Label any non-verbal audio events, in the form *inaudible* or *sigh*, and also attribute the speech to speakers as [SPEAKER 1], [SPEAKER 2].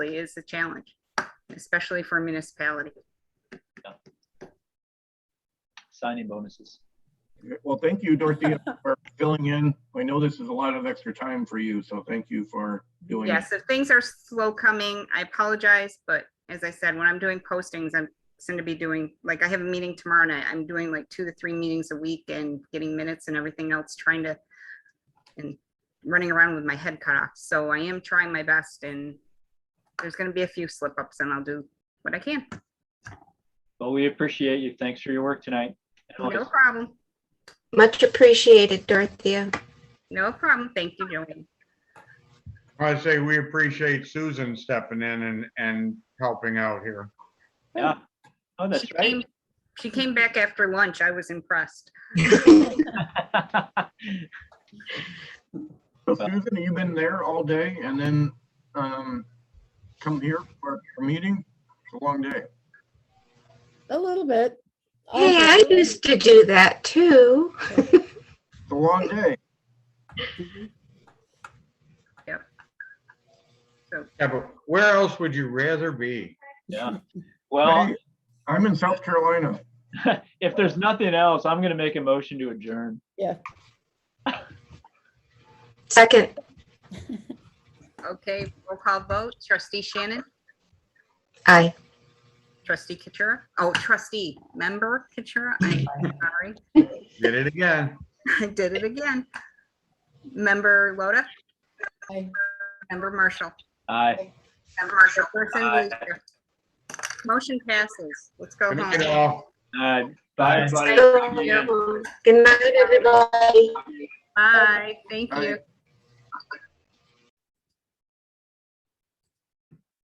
[SPEAKER 1] is a challenge, especially for a municipality.
[SPEAKER 2] signing bonuses.
[SPEAKER 3] Well, thank you, Dorothea, for filling in. I know this is a lot of extra time for you, so thank you for
[SPEAKER 2] Oh,
[SPEAKER 3] doing it.
[SPEAKER 1] Yes, if things are slow coming, I apologize, but as I said, when I'm doing postings, I'm soon to be doing, like, I have a meeting tomorrow night. I'm doing like two to three meetings a week and getting minutes and everything else, trying to and running around with my head cut off. So I am trying my best and there's gonna be a few slip ups and I'll do what I can.
[SPEAKER 2] Well, we appreciate you. Thanks for your work tonight. And
[SPEAKER 1] No
[SPEAKER 2] always-
[SPEAKER 1] problem.
[SPEAKER 4] Much appreciated, Dorothea.
[SPEAKER 1] No problem. Thank you, Joanne.
[SPEAKER 5] I say we appreciate Susan stepping in and, and helping out here.
[SPEAKER 2] Yeah. Oh, that's
[SPEAKER 1] She
[SPEAKER 2] right.
[SPEAKER 1] came- She came back after lunch. I was impressed.
[SPEAKER 3] So Susan, you've been there all day and then um, come here for a meeting? It's a long day.
[SPEAKER 6] A little bit.
[SPEAKER 4] Hey, I used to do that too.
[SPEAKER 3] It's a long day.
[SPEAKER 5] Yeah, but where else would you rather be?
[SPEAKER 2] *laughs* Yeah. Well,
[SPEAKER 3] Hey, I'm in South Carolina.
[SPEAKER 2] if there's nothing else, I'm gonna make a motion to adjourn.
[SPEAKER 4] Second,
[SPEAKER 1] Okay, roll call vote. Trustee Shannon?
[SPEAKER 4] aye.
[SPEAKER 1] Trustee Katura, oh, trustee, member Katura, I'm sorry, *laughs*
[SPEAKER 5] Did it again.
[SPEAKER 1] I did it again. Member Loda,
[SPEAKER 6] Aye.
[SPEAKER 1] member Marshall.
[SPEAKER 2] Aye.
[SPEAKER 1] Member Marshall. Person
[SPEAKER 2] Aye.
[SPEAKER 1] leader. Motion passes. Let's go
[SPEAKER 5] Good night,
[SPEAKER 1] home.
[SPEAKER 5] all.
[SPEAKER 2] Aye. Bye, everybody.
[SPEAKER 4] So, Good night, everybody.
[SPEAKER 1] Bye, thank
[SPEAKER 3] Aye.
[SPEAKER 1] you.